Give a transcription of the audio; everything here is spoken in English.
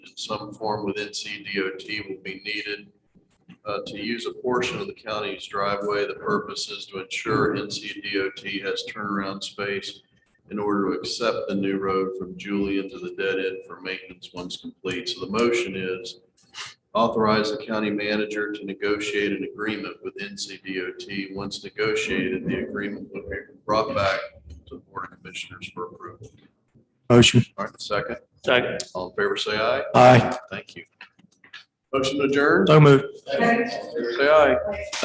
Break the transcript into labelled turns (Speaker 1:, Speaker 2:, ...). Speaker 1: in some form with NCDOT will be needed uh, to use a portion of the county's driveway. The purpose is to ensure NCDOT has turnaround space in order to accept the new road from Julian to the dead end for maintenance once complete. So the motion is authorize the county manager to negotiate an agreement with NCDOT. Once negotiated, the agreement will be brought back to the Board of Commissioners for approval.
Speaker 2: Motion.
Speaker 1: All right, second,
Speaker 3: Second.
Speaker 1: all in favor, say aye.
Speaker 2: Aye.
Speaker 1: Thank you. Motion adjourned.
Speaker 2: So moved.
Speaker 1: Say aye.